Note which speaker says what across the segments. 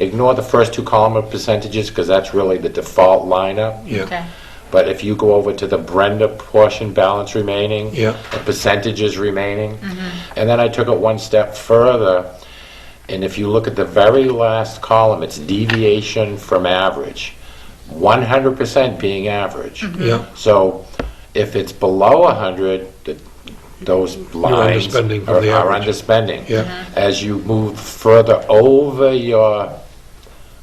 Speaker 1: Ignore the first two column of percentages, because that's really the default lineup.
Speaker 2: Okay.
Speaker 3: Yeah.
Speaker 1: But if you go over to the Brenda portion, balance remaining.
Speaker 2: Yeah.
Speaker 1: The percentages remaining. And then I took it one step further, and if you look at the very last column, it's deviation from average. 100% being average.
Speaker 2: Yeah.
Speaker 1: So if it's below 100, th- those lines are are
Speaker 2: underspending from the average.
Speaker 1: underspending.
Speaker 2: Yeah.
Speaker 1: As you move further over your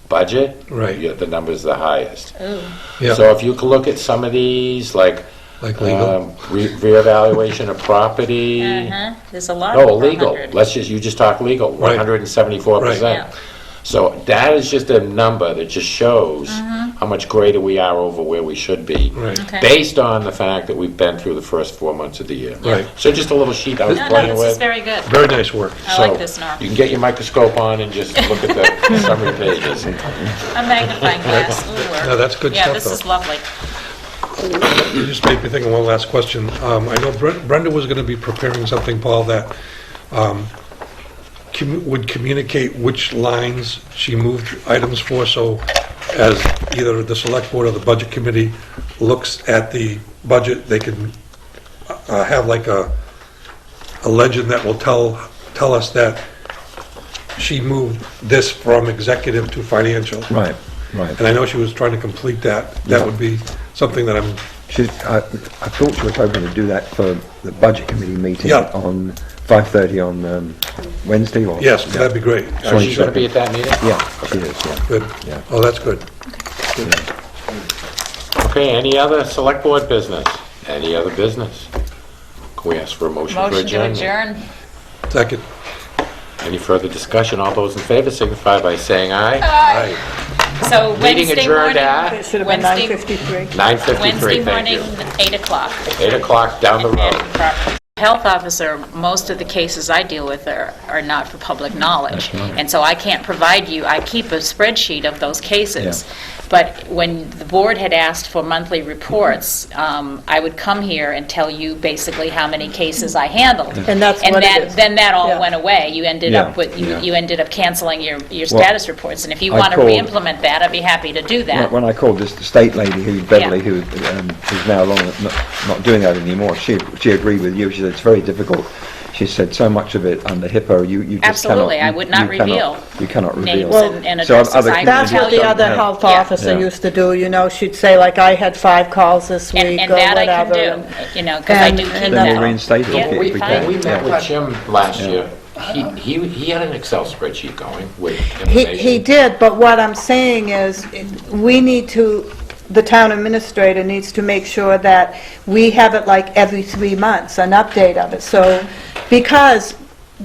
Speaker 1: budget,
Speaker 2: Right.
Speaker 1: your- the number's the highest.
Speaker 3: Ooh.
Speaker 2: Yeah,
Speaker 1: So if you can look at some of these, like
Speaker 2: like legal.
Speaker 1: um, re- reevaluation of property.
Speaker 3: Uh-huh. There's a lot.
Speaker 1: No,
Speaker 3: over a
Speaker 1: legal,
Speaker 3: hundred.
Speaker 1: let's just, you just talk legal,
Speaker 2: Right.
Speaker 1: 174%.
Speaker 3: Right. Yeah.
Speaker 1: So that is just a number that just shows how much greater we are over where we should be.
Speaker 2: Right.
Speaker 3: Mm-hmm. Okay.
Speaker 1: Based on the fact that we've been through the first four months of the year.
Speaker 2: Right.
Speaker 1: So just a little sheet I was
Speaker 3: No, no,
Speaker 1: playing
Speaker 3: this is
Speaker 1: with.
Speaker 3: very good.
Speaker 2: Very nice work.
Speaker 3: I like
Speaker 1: So
Speaker 3: this, Norm.
Speaker 1: You can get your microscope on and just look at the summary pages.
Speaker 3: A magnifying glass. will work.
Speaker 2: No, that's good
Speaker 3: Yeah,
Speaker 2: stuff,
Speaker 3: this
Speaker 2: though.
Speaker 3: is lovely.
Speaker 2: You just made me think of one last question. Um, I know Bren- Brenda was going to be preparing something, Paul, that um, commu- would communicate which lines she moved items for, so as either the select board or the budget committee looks at the budget, they can uh, have like a, a legend that will tell, tell us that she moved this from executive to financial.
Speaker 4: Right, right.
Speaker 2: And I know she was trying to complete that. That would be something that I'm
Speaker 4: She, I, I thought she was hoping to do that for the budget committee meeting
Speaker 2: Yeah.
Speaker 4: on 5.30 on um, Wednesday or?
Speaker 2: Yes, that'd be great.
Speaker 1: Are you going to be at that meeting?
Speaker 4: Yeah, she is, yeah.
Speaker 2: Good.
Speaker 4: Yeah.
Speaker 2: Oh, that's good.
Speaker 1: Okay, any other select board business? Any other business? Can we ask for a motion for
Speaker 3: Motion to
Speaker 1: adjournment?
Speaker 3: adjourn.
Speaker 2: Second.
Speaker 1: Any further discussion? All those in favor signify by saying
Speaker 3: Oh,
Speaker 1: aye.
Speaker 2: Aye.
Speaker 3: So
Speaker 1: Meeting
Speaker 3: Wednesday
Speaker 1: adjourned
Speaker 3: morning.
Speaker 1: at-
Speaker 5: It should have been
Speaker 3: Wednesday-
Speaker 5: 9:53.
Speaker 1: 9:53,
Speaker 3: Wednesday
Speaker 1: thank
Speaker 3: morning,
Speaker 1: you.
Speaker 3: 8 o'clock.
Speaker 1: 8 o'clock down the road.
Speaker 3: And property. Health officer, most of the cases I deal with are, are not for public knowledge. And so I can't provide you, I keep a spreadsheet of those cases. But when the board had asked for monthly reports, um, I would come here and tell you basically how many cases I handled.
Speaker 5: And that's what it
Speaker 3: that-
Speaker 5: is.
Speaker 3: Then that all
Speaker 5: Yeah.
Speaker 3: went away. You ended
Speaker 4: Yeah.
Speaker 3: up with, you
Speaker 2: Yeah.
Speaker 3: you ended up canceling your, your
Speaker 4: Well,
Speaker 3: status reports. And if you
Speaker 4: I
Speaker 3: want to
Speaker 4: called-
Speaker 3: re-implement that, I'd be happy to do that.
Speaker 4: When- When I called this state lady who, Beverly, who um, is now long, not, not doing that anymore, she, she agreed with you, she said it's very difficult. She said so much of it under HIPAA, you, you just cannot.
Speaker 3: Absolutely, I
Speaker 4: you-
Speaker 3: would
Speaker 4: you
Speaker 3: not
Speaker 4: cannot-
Speaker 3: reveal
Speaker 4: You cannot reveal.
Speaker 3: names and- and
Speaker 4: So
Speaker 3: addresses.
Speaker 4: other
Speaker 3: I-
Speaker 5: That's what the
Speaker 3: Yeah.
Speaker 5: other health
Speaker 3: Yeah.
Speaker 5: officer
Speaker 4: Yeah.
Speaker 5: used to do, you know, she'd say like, I had five calls this week or
Speaker 3: And, and
Speaker 5: whatever.
Speaker 3: that I can
Speaker 5: and-
Speaker 3: do, you know, because I
Speaker 5: And-
Speaker 3: do keep that.
Speaker 5: and Then we
Speaker 4: reinstate it
Speaker 3: Yeah,
Speaker 4: if it-
Speaker 3: we
Speaker 4: if we
Speaker 3: find-
Speaker 4: can.
Speaker 1: We met with Jim last year. He, he he had an Excel spreadsheet going with
Speaker 5: He,
Speaker 1: information.
Speaker 5: he did, but what I'm saying is, we need to, the town administrator needs to make sure that we have it like every three months, an update of it, so, because,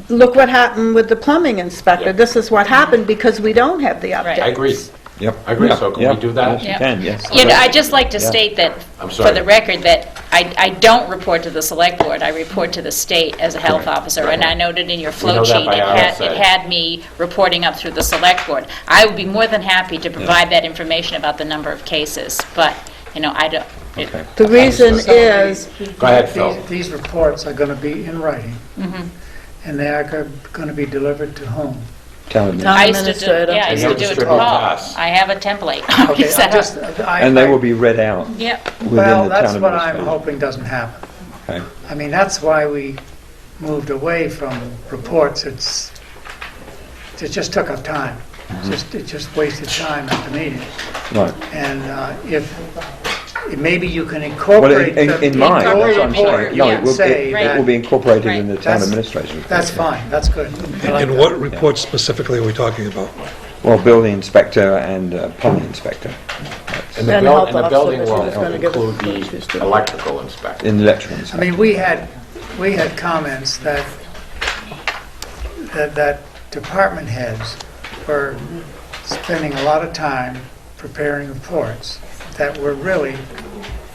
Speaker 5: look what happened with the plumbing inspector,
Speaker 1: Yeah.
Speaker 5: this is what happened because we don't have the update.
Speaker 1: I agree.
Speaker 4: Yep.
Speaker 1: I agree,
Speaker 4: Yeah,
Speaker 1: so can we
Speaker 4: yeah.
Speaker 1: do that?
Speaker 4: Yes, you
Speaker 3: Yep.
Speaker 4: can, yes.
Speaker 3: You know, I'd just like to
Speaker 4: Yeah.
Speaker 3: state that,
Speaker 1: I'm
Speaker 3: for
Speaker 1: sorry.
Speaker 3: the record, that I, I don't report to the select board, I report to the state as a health officer, and I noted in your flow
Speaker 1: know that
Speaker 3: sheet,
Speaker 1: by
Speaker 3: it
Speaker 1: our
Speaker 3: had,
Speaker 1: side.
Speaker 3: it had me reporting up through the select board. I would be more than happy to provide that information about the number of cases, but, you know, I don't, it-
Speaker 4: Okay.
Speaker 5: The reason
Speaker 6: So
Speaker 5: is,
Speaker 6: these-
Speaker 1: Go ahead,
Speaker 6: these-
Speaker 1: Phil.
Speaker 6: These reports are going to be in writing, and they are going to be delivered to whom?
Speaker 4: Town admin.
Speaker 3: I used to do,
Speaker 5: administrator.
Speaker 3: yeah, I
Speaker 1: And
Speaker 3: used
Speaker 1: you'll
Speaker 3: to do it to
Speaker 1: distribute to
Speaker 3: Paul.
Speaker 1: us.
Speaker 3: I have a template.
Speaker 6: Okay,
Speaker 3: Is
Speaker 6: I
Speaker 3: that-
Speaker 6: just- I-
Speaker 4: And they
Speaker 6: I-
Speaker 4: will be read out within
Speaker 3: Yep.
Speaker 4: the
Speaker 6: Well,
Speaker 4: town
Speaker 6: that's
Speaker 4: administration.
Speaker 6: what I'm hoping doesn't happen.
Speaker 4: Okay.
Speaker 6: I mean, that's why we moved away from reports. It's, it just took up time.
Speaker 4: Mm-hmm.
Speaker 6: Just, it just wasted time at the meeting.
Speaker 4: Right.
Speaker 6: And uh, if, maybe you can
Speaker 4: Well,
Speaker 6: incorporate
Speaker 4: in, in,
Speaker 6: the...
Speaker 4: in mind, that's what I'm saying.
Speaker 6: incorporate
Speaker 4: No,
Speaker 6: the
Speaker 4: it
Speaker 6: report
Speaker 4: will,
Speaker 6: and say
Speaker 4: it,
Speaker 3: Right.
Speaker 4: it will
Speaker 6: that-
Speaker 4: be incorporated in the town
Speaker 6: That's-
Speaker 4: administration. report,
Speaker 6: That's
Speaker 4: yeah.
Speaker 6: fine, that's good. I like
Speaker 2: And
Speaker 6: that.
Speaker 2: what reports specifically are we talking about?
Speaker 4: Well, building inspector and uh, plumbing inspector
Speaker 1: And the
Speaker 5: Then
Speaker 1: buil-
Speaker 5: help
Speaker 1: and the
Speaker 5: us,
Speaker 1: building
Speaker 5: so this
Speaker 1: will
Speaker 5: is gonna give us
Speaker 1: include
Speaker 5: what she's
Speaker 1: the
Speaker 5: doing.
Speaker 1: electrical inspector.
Speaker 4: in the electrical
Speaker 6: I
Speaker 4: inspector.
Speaker 6: mean, we had, we had comments that, that, that department heads were spending a lot of time preparing reports that were really,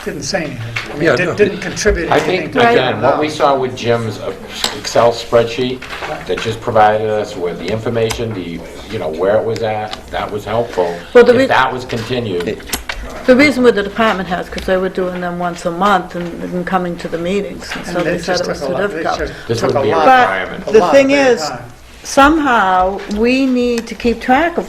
Speaker 6: didn't say anything. I
Speaker 2: Yeah,
Speaker 6: mean,
Speaker 2: no.
Speaker 6: didn't- didn't contribute
Speaker 1: I think,
Speaker 6: anything to the
Speaker 1: again, what we saw with Jim's uh, Excel spreadsheet that just provided us with the information, the, you know, where it was at, that was helpful.
Speaker 5: Well, the re-
Speaker 1: If that was continued,
Speaker 5: The reason with the department heads, because they were doing them once a month and and coming to the meetings, and so
Speaker 6: And
Speaker 5: they
Speaker 6: it
Speaker 5: said
Speaker 6: just
Speaker 5: it was
Speaker 6: took a
Speaker 5: too
Speaker 6: lot, it
Speaker 5: difficult.
Speaker 1: This
Speaker 6: just took a
Speaker 1: would be a
Speaker 6: lot.
Speaker 1: requirement.
Speaker 5: But
Speaker 6: a
Speaker 5: the
Speaker 6: lot
Speaker 5: thing
Speaker 6: of their
Speaker 5: is,
Speaker 6: time.
Speaker 5: somehow, we need to keep track of